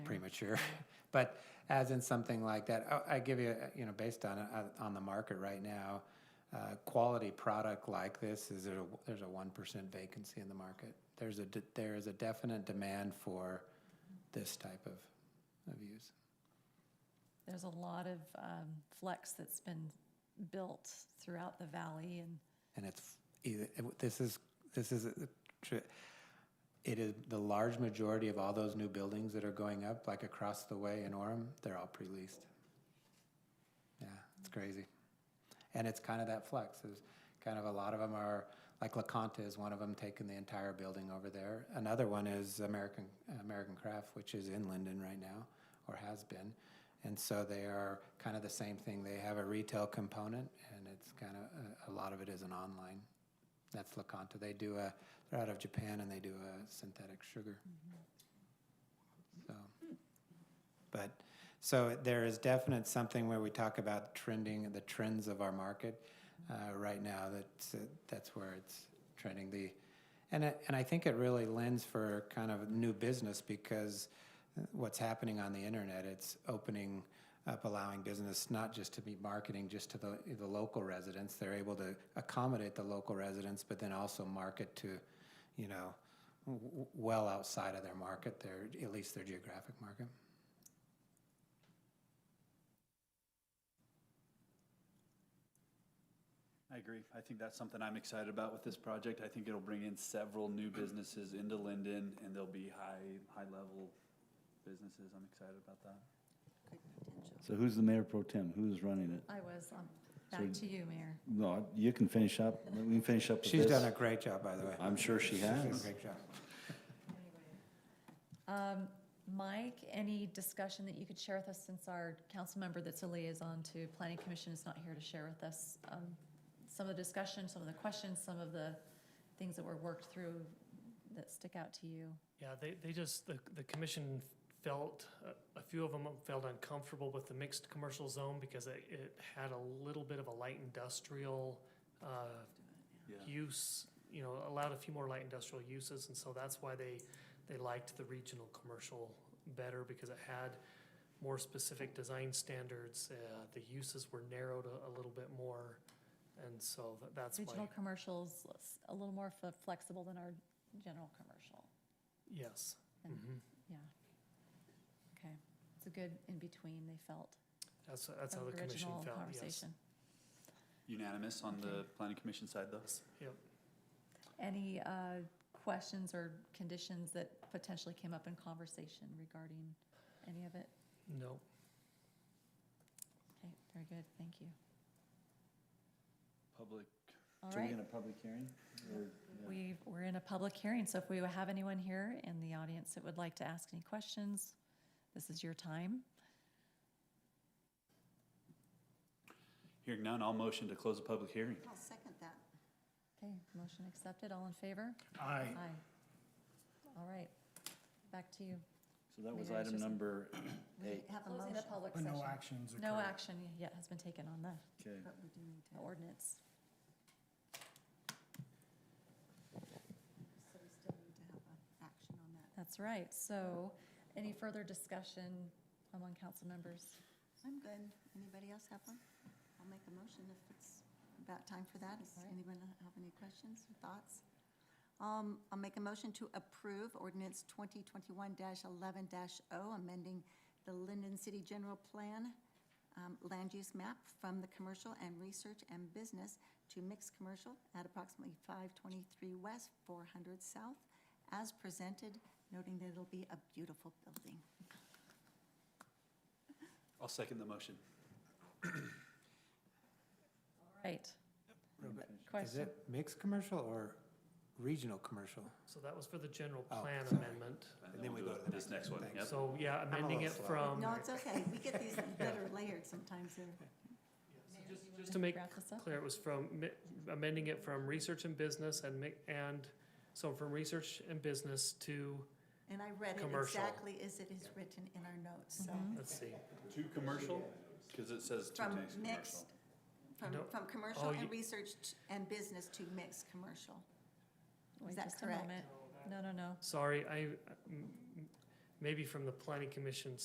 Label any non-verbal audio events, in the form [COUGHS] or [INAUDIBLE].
temperature, [LAUGHS] but as in something like that, I, I give you, uh, you know, based on uh, on the market right now, uh, quality product like this is there a, there's a one percent vacancy in the market. There's a de- there is a definite demand for this type of of use. There's a lot of um, flex that's been built throughout the valley and and it's either, it- this is this is uh, tr- it is the large majority of all those new buildings that are going up like across the way in Orem they're all pre-leased yeah it's crazy and it's kind of that flex is kind of a lot of them are like La Conta is one of them taking the entire building over there another one is American American Craft which is in Linden right now or has been and so they are kind of the same thing. They have a retail component, and it's kind of a, a lot of it is an online. That's Lakanta. They do a. They're out of Japan, and they do a synthetic sugar. So, but so there is definite something where we talk about trending the trends of our market. Uh, right now, that's uh, that's where it's trending. The and it, and I think it really lends for kind of new business because uh, what's happening on the internet. It's opening up, allowing business not just to be marketing just to the, the local residents. They're able to accommodate the local residents, but then also market to, you know, w- w- well outside of their market, their at least their geographic market. I agree. I think that's something I'm excited about with this project. I think it'll bring in several new businesses into Linden and they'll be high, high level businesses. I'm excited about that. So who's the mayor pro tem? Who's running it? I was, um, back to you, Mayor. No, you can finish up. We can finish up with She's done a this. great job, by the way. I'm sure she She's done a has. Great job. Um, Mike, any discussion that you could share with us since our council member that's a liaison to planning commission is not here to share with us? Um, some of the discussion, some of the questions, some of the things that were worked through that stick out to you? Yeah, they, they just, the, the commission felt, uh, a few of them felt uncomfortable with the mixed commercial zone because it, it had a little bit of a light industrial, uh, Yeah. use, you know, allowed a few more light industrial uses, and so that's why they, they liked the regional commercial better, because it had more specific design standards, uh, the uses were narrowed a, a little bit more, and so tha- that's why, Regional commercials, less- a little more f- flexible than our general commercial, yes. And- Mhm. yeah. Okay, it's a good in-between, they felt, That's, that's how from the commission original felt, yes. conversation. Unanimous on the Okay. planning commission side though? Yep. Any uh, questions or conditions that potentially came up in conversation regarding any of it? No, Okay, very good, thank you. Public, All So we're right, going to public hearing? or- yeah. we, we're in a public hearing, so if we have anyone here in the audience that would like to ask any questions, this is your time. hearing none, I'll motion to close the public hearing. I'll second that. Okay, motion accepted, all in favor? Aye. Aye. All right, back to you. So that was Mayor, it's item just- [COUGHS] number We eight. have a Closing the motion, public But session. no actions occurred. No action yet has been taken on the Okay. but we do need to. ordinance. So we still need to have an action on that. That's right. So any further discussion among council members? I'm good. Anybody else have one? I'll make a motion if it's about time for that. Does All right. anyone have any questions or thoughts? Um, I'll make a motion to approve ordinance twenty twenty-one eleven 0 amending the Linden City General Plan um, land use map from the commercial and research and business to mixed commercial at approximately five twenty-three west, four hundred south, as presented, noting that it'll be a beautiful building. I'll second the motion. Right. Real quick. Is Question. it mixed commercial or regional commercial? so that was for the general Oh, plan sorry. amendment. And then we we'll go do to the This next next one. one, yep. So, yeah, a amending it little slow. from, No, it's okay. We get [LAUGHS] these better layered sometimes. They're just- just to make Wrap this up? clear, it was from mi- amending it from research and business and mi- and, so from research and business to, And I read it Commercial. exactly as it is written in our notes, so, let's see, Two commercial, because it says two from mixed commercial. mixed, from, No. from Oh, commercial you- and research t- and business to mixed commercial. Wait that just a correct? moment. No, no, no. sorry, I, m- m- maybe from the planning commission